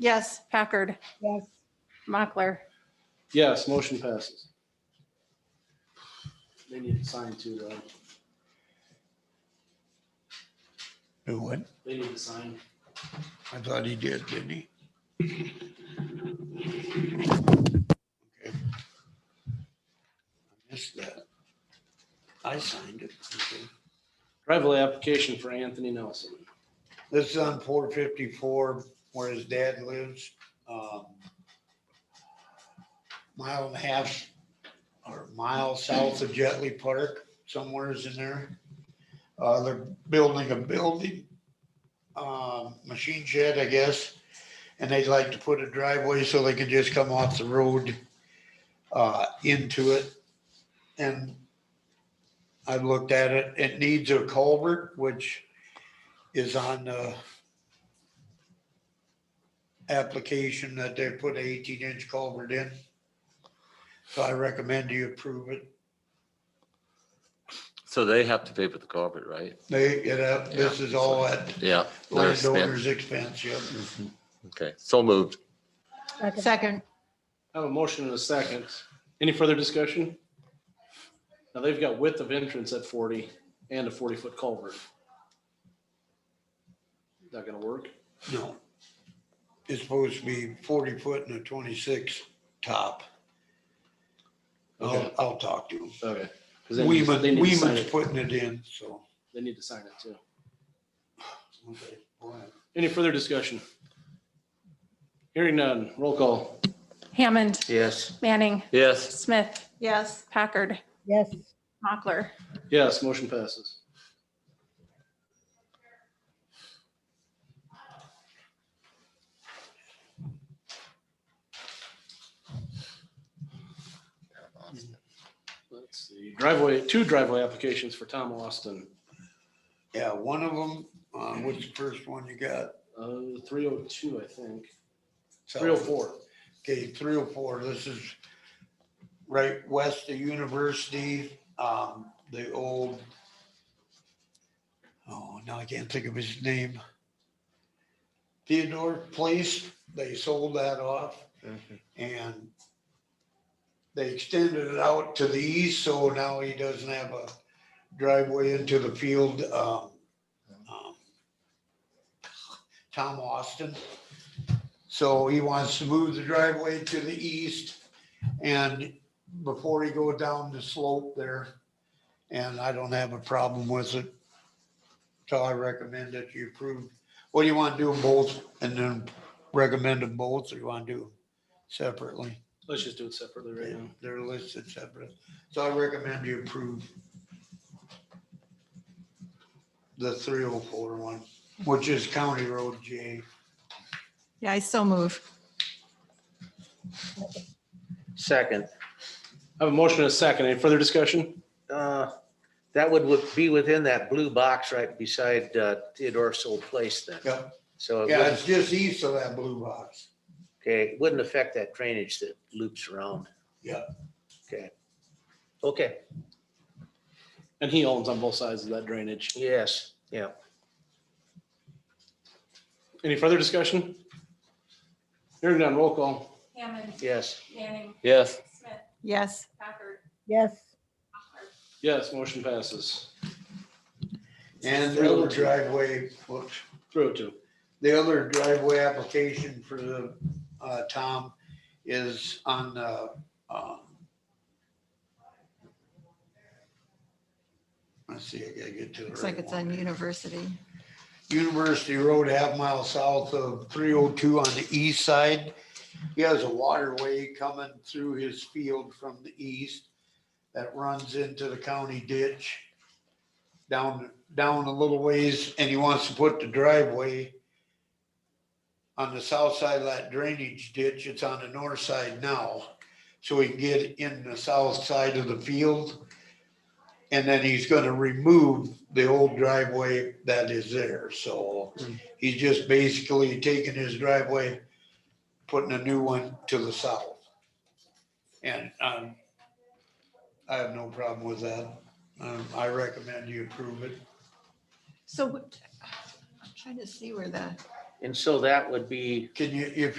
Yes. Packard, Yes. Mochler, Yes, motion passes. They need to sign too, though. Do what? They need to sign. I thought he did, didn't he? Okay. I Missed that. I signed it. Okay. Driveway application for Anthony Nelson. This is on four fifty-four where his dad lives. um, Mile and a half or mile south of Jetley Park, somewhere's in there. Uh, they're building a building, uh, machine shed, I guess. And they'd like to put a driveway so they could just come off the road, uh, into it. And I've looked at it. It needs a culvert, which is on the application that they put an eighteen inch culvert in. So I recommend you approve it. So they have to pay for the culvert, right? They, it, uh, this is all at Yeah. they're spent- landowner's expense, yep. Okay, so moved. second. I have a motion and a second. Any further discussion? Now they've got width of entrance at forty and a forty-foot culvert. Is that gonna work? No. It's supposed to be forty foot and a twenty-six top. I'll, Okay. I'll talk to him. Okay. 'Cause they need- Weeman, they need to sign Weeman's it. putting it in, so. They need to sign it too. okay, go ahead. Any further discussion? Hearing none, roll call. Hammond, Yes. Manning, Yes, Smith. Yes. Packard, Yes. Mochler, Yes, motion passes. Let's see, driveway, two driveway applications for Tom Austin, Yeah, one of them, uh, what's the first one you got? uh, three oh two, I think, So- three oh four. Okay, three oh four, this is right west of University, um, the old. Oh, now I can't think of his name. Theodore Place, they sold that off and. They extended it out to the east, so now he doesn't have a driveway into the field, um. um, Tom Austin. So he wants to move the driveway to the east and before he go down the slope there. And I don't have a problem with it. So I recommend that you approve. What do you want to do them both and then recommend them both or you want to do them separately? Let's just do it separately right now. They're listed separate. So I recommend you approve the 304 one, which is County Road J. Yeah, I so move. Second, I have a motion and a second. Any further discussion? uh, that would would be within that blue box right beside uh, Theodore's old place then. Yep. So, it Yeah, wouldn't- it's just east of that blue box. okay, it wouldn't affect that drainage that loops around. Yeah. Okay. Okay, And he owns on both sides of that drainage. yes, yeah. Any further discussion? Hearing none, roll call. Hammond, Yes, Manning, yes, Smith. Yes. Packard, Yes. Yes, motion passes. And the other driveway, whoops, Three oh two. the other driveway application for the, uh, Tom is on the, um, let's see, I gotta get to the Looks like right it's on one. University. University Road, half mile south of three oh two on the east side. He has a waterway coming through his field from the east that runs into the county ditch. Down, down a little ways, and he wants to put the driveway on the south side of that drainage ditch. It's on the north side now. So he can get in the south side of the field. And then he's gonna remove the old driveway that is there, so he's just basically taking his driveway, putting a new one to the south. And, um, I have no problem with that. Um, I recommend you approve it. So what- I'm trying to see where the, And so that would be Can you, if